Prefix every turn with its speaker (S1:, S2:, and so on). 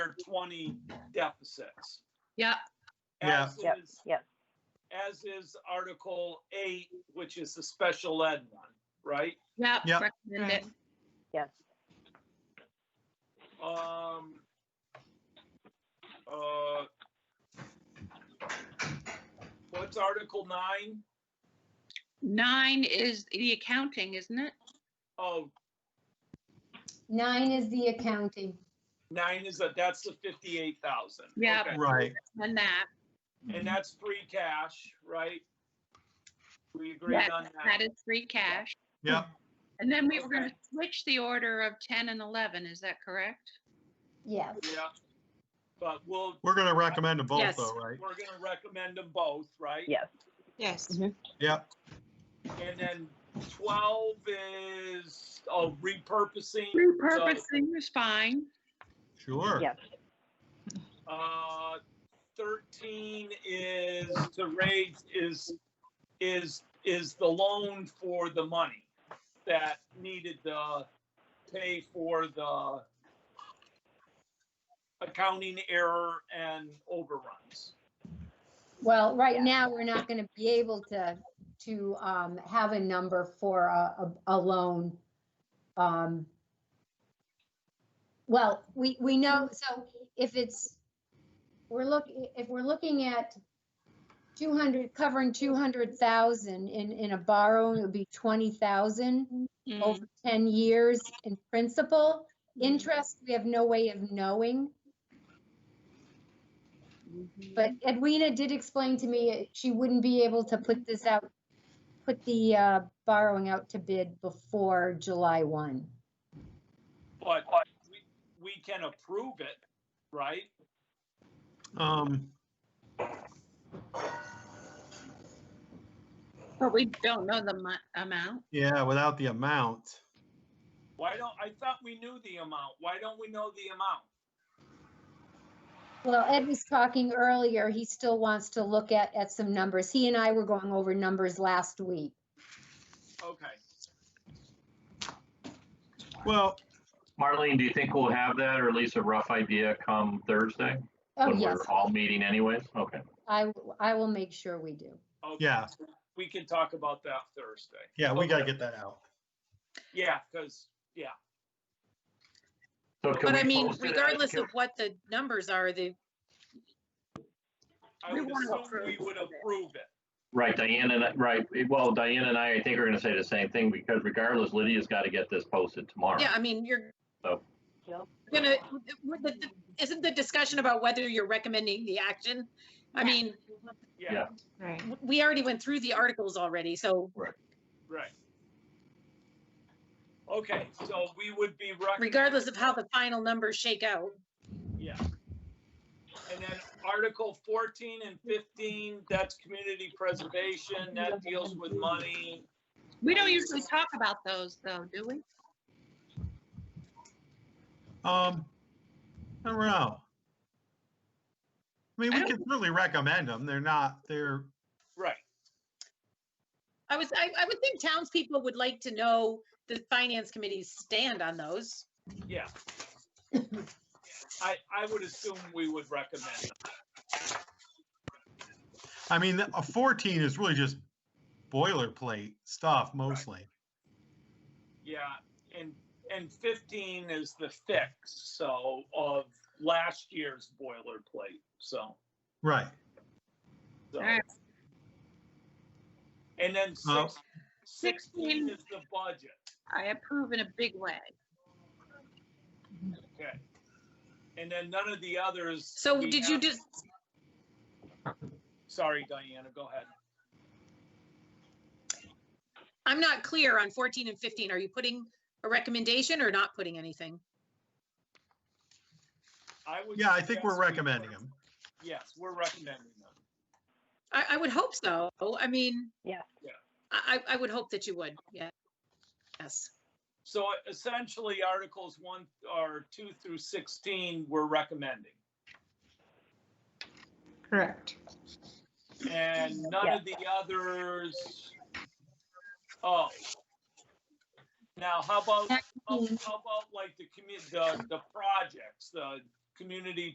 S1: their twenty deficits.
S2: Yep.
S3: Yeah.
S1: As
S4: Yep,
S1: is,
S4: yep.
S1: as is Article eight, which is the special ed one, right?
S2: Yep.
S3: Yep.
S2: Recommend it.
S4: yes.
S1: Um. Uh. What's Article nine?
S2: Nine is the accounting, isn't it?
S1: Oh,
S5: Nine is the accounting.
S1: nine is a, that's the fifty-eight thousand.
S2: Yeah.
S3: Right.
S2: And that,
S1: And that's free cash, right? We agreed
S2: Yes,
S1: on
S2: that
S1: that.
S2: is free cash.
S3: Yep.
S2: And then we were going to
S1: Okay.
S2: switch the order of 10 and 11, is that correct?
S5: Yeah,
S1: Yeah. But we'll,
S3: We're going to recommend them both
S6: Yes.
S3: though, right?
S1: we're gonna recommend them both, right?
S4: Yeah.
S6: Yes.
S3: Yep.
S1: And then twelve is, oh, repurposing. So,
S2: Repurposing is fine.
S3: Sure.
S4: Yes.
S1: Uh, thirteen is the raise is, is, is the loan for the money that needed to pay for the accounting error and overruns.
S5: well, right now, we're not gonna be able to, to um, have a number for a, a a loan. Um, Well, we, we know, so if it's, we're look, if we're looking at 200, covering 200,000 in, in a borrowing, it would be 20,000
S2: Mm,
S5: over 10 years in principal. Interest, we have no way of knowing.
S2: mhm.
S5: But Edwina did explain to me she wouldn't be able to put this out, put the uh, borrowing out to bid before July 1.
S1: But we, we can approve it, right?
S3: Um,
S2: But we don't know the mu- amount.
S3: yeah, without the amount.
S1: Why don't, I thought we knew the amount. Why don't we know the amount?
S5: Well, Ed was talking earlier, he still wants to look at, at some numbers. He and I were going over numbers last week.
S1: Okay.
S3: Well,
S7: Marlene, do you think we'll have that or at least a rough idea come Thursday?
S5: Oh,
S7: When
S5: yes,
S7: we're all meeting anyways? Okay.
S5: I, I will make sure we do.
S1: okay.
S3: yeah,
S1: We can talk about that Thursday.
S3: yeah, we got to get that out.
S1: Yeah, because,
S7: So can
S6: But
S7: we
S6: I mean,
S7: post it as-
S6: regardless of what the numbers are, the,
S1: I
S2: We
S1: would
S2: wanna
S1: assume we
S2: approve
S1: would
S2: it.
S1: approve it.
S7: Right, Diane and I, right, well, Diane and I, I think are gonna say the same thing because regardless, Lydia's gotta get this posted tomorrow.
S6: yeah, I mean, you're
S7: So-
S6: gonna, would the- isn't the discussion about whether you're recommending the action? I mean,
S1: Yeah,
S7: Yeah.
S6: Right. We already went through the articles already, so
S1: right. Okay, so we would be. rec-
S6: regardless of how the final numbers shake out,
S1: Yeah. And then Article fourteen and fifteen, that's community preservation, that deals with money.
S2: We don't usually talk about those though, do we?
S3: Um, I don't know. I mean,
S2: I
S3: we
S2: don't-
S3: can certainly recommend them. They're not, they're,
S1: Right,
S6: I was, I, I would think townspeople would like to know the finance committee's stand on those.
S1: yeah. I, I would assume we would recommend. it.
S3: I mean, a 14 is really just boilerplate stuff mostly.
S1: Yeah, and, and fifteen is the fix, so, of last year's boilerplate, so.
S3: Right.
S1: so.
S2: Alright.
S1: And then
S3: Uh,
S1: six, sixteen is the budget,
S2: I approve in a big way.
S1: okay. And then none of the others.
S6: So
S1: we
S6: did you
S1: have-
S6: just,
S1: Sorry, Diana, go ahead.
S6: I'm not clear on 14 and 15. Are you putting a recommendation or not putting anything?
S1: I would.
S3: Yeah, I think we're
S1: suggest we
S3: recommending
S1: put-
S3: them.
S1: Yes, we're recommending them.
S6: I, I would hope so. I mean.
S4: Yeah.
S1: Yeah.
S6: I, I I would hope that you would, yeah. Yes,
S1: So essentially, Articles one or two through sixteen, we're recommending.
S8: Correct.
S1: And none of the others. Oh. Now, how about, how how about like the commu, the, the projects, the community